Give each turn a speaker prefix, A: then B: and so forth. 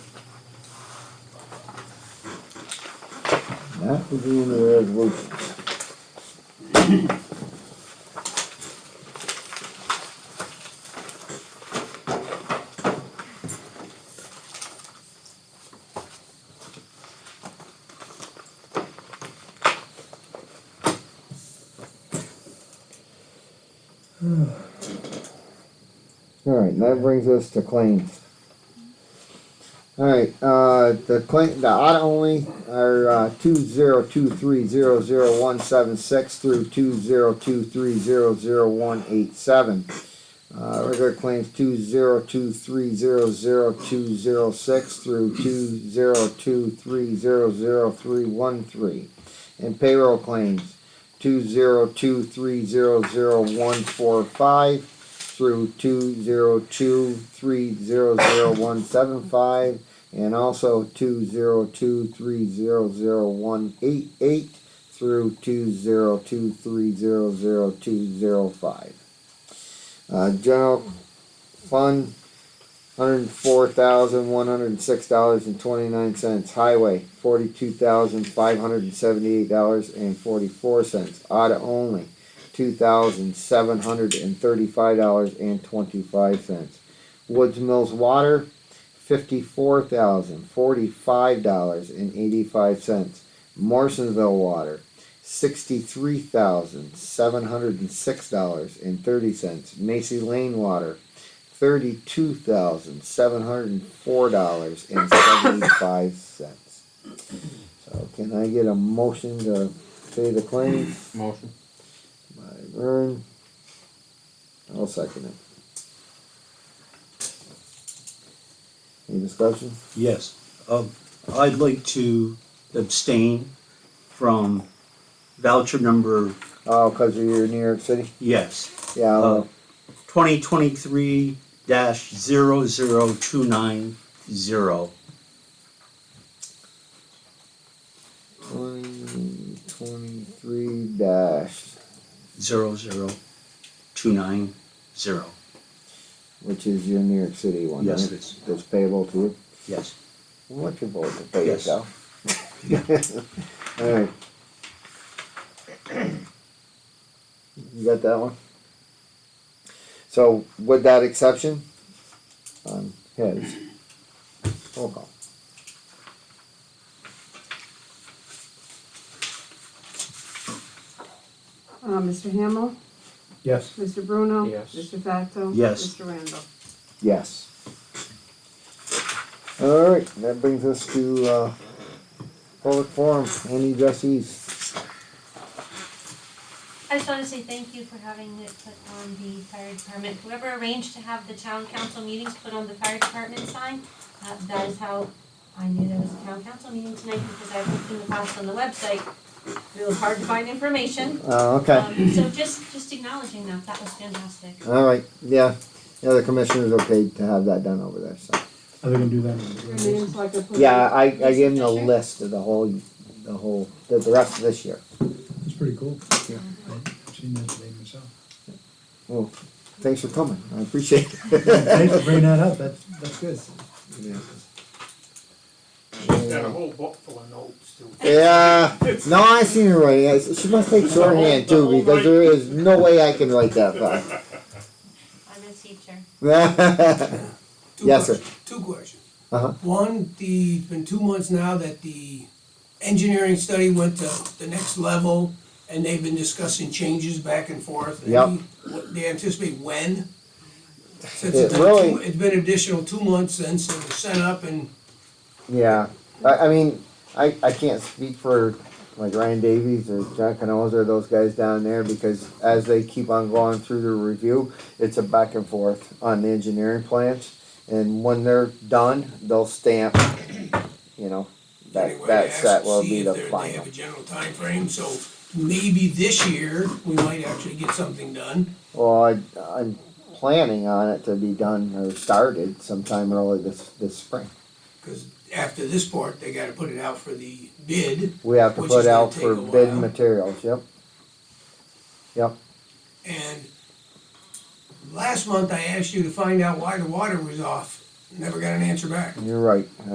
A: That would be in the resolution. Alright, that brings us to claims. Alright, uh, the claim, the audit only are, uh, two zero two three zero zero one seven six through two zero two three zero zero one eight seven. Uh, regular claims two zero two three zero zero two zero six through two zero two three zero zero three one three. And payroll claims two zero two three zero zero one four five through two zero two three zero zero one seven five and also two zero two three zero zero one eight eight through two zero two three zero zero two zero five. Uh, general fund, hundred and four thousand, one hundred and six dollars and twenty-nine cents. Highway, forty-two thousand, five hundred and seventy-eight dollars and forty-four cents. Audit only, two thousand, seven hundred and thirty-five dollars and twenty-five cents. Woods Mills Water, fifty-four thousand forty-five dollars and eighty-five cents. Morrisonville Water, sixty-three thousand seven hundred and six dollars and thirty cents. Macy Lane Water, thirty-two thousand seven hundred and four dollars and seventy-five cents. So can I get a motion to pay the claims?
B: Motion.
A: By Vern. I'll second it. Any discussion?
C: Yes, um, I'd like to abstain from voucher number,
A: Oh, because you're in New York City?
C: yes,
A: Yeah,
C: uh,
A: I'll-
C: twenty twenty-three dash zero zero two nine zero.
A: twenty twenty-three dash,
C: zero zero two nine zero.
A: which is your New York City one, right?
C: Yes, it is.
A: That's payable to you?
C: Yes.
A: What you vote to pay
C: Yes.
A: yourself? Alright. You got that one? So with that exception, on his, roll call.
D: Uh, Mr. Hamel?
B: Yes.
D: Mr. Bruno?
B: Yes.
D: Mr. Facto?
C: Yes.
D: Mr. Randall?
A: Yes. Alright, that brings us to, uh, public forum, any addressees?
E: I just wanna say thank you for having it put on the fire department, whoever arranged to have the town council meetings put on the fire department sign, uh, that is how I knew there was a town council meeting tonight, because I've looked in the past on the website, it was hard to find information.
A: Uh, okay,
E: Um, so just, just acknowledging that, that was fantastic.
A: alright, yeah, yeah, the commissioner's okay to have that done over there, so.
B: Are they gonna do that?
D: Your name's like a.
A: Yeah, I, I gave him the
E: Yes, sure.
A: list of the whole, the whole, the, the rest of this year.
B: It's pretty cool. Yeah. I've seen that today myself.
A: Well, thanks for coming, I appreciate
B: Thanks for
A: it.
B: bringing that up, that's, that's good.
F: Got a whole book full of notes too.
A: Yeah, no, I seen her writing, I s- she must take shorthand too, because there is no way I can write that fast.
E: I'm a teacher.
G: Two
A: Yes, sir.
G: questions- Two questions.
A: Uh-huh.
G: One, the, it's been two months now that the engineering study went to the next level, and they've been discussing changes back and forth.
A: Yep.
G: Any- what- They anticipate when? Since
A: It
G: it's been
A: really-
G: two- It's been additional two months since it was sent up, and
A: Yeah, I, I mean, I, I can't speak for like Ryan Davies or John Canoza or those guys down there because as they keep on going through the review, it's a back and forth on the engineering plans. And when they're done, they'll stamp, you know, that,
G: anyway, I
A: that set
G: asked
A: will
G: to
A: be
G: see
A: the
G: if they're- they
A: final.
G: have a general timeframe, so maybe this year, we might actually get something done.
A: Well, I, I'm planning on it to be done or started sometime early this, this spring.
G: Because after this part, they gotta put it out for the bid,
A: We have to
G: Which
A: put
G: is gonna
A: out for
G: take a
A: bid
G: while.
A: materials, yep. Yep.
G: And last month I asked you to find out why the water was off, never got an answer back.
A: You're right,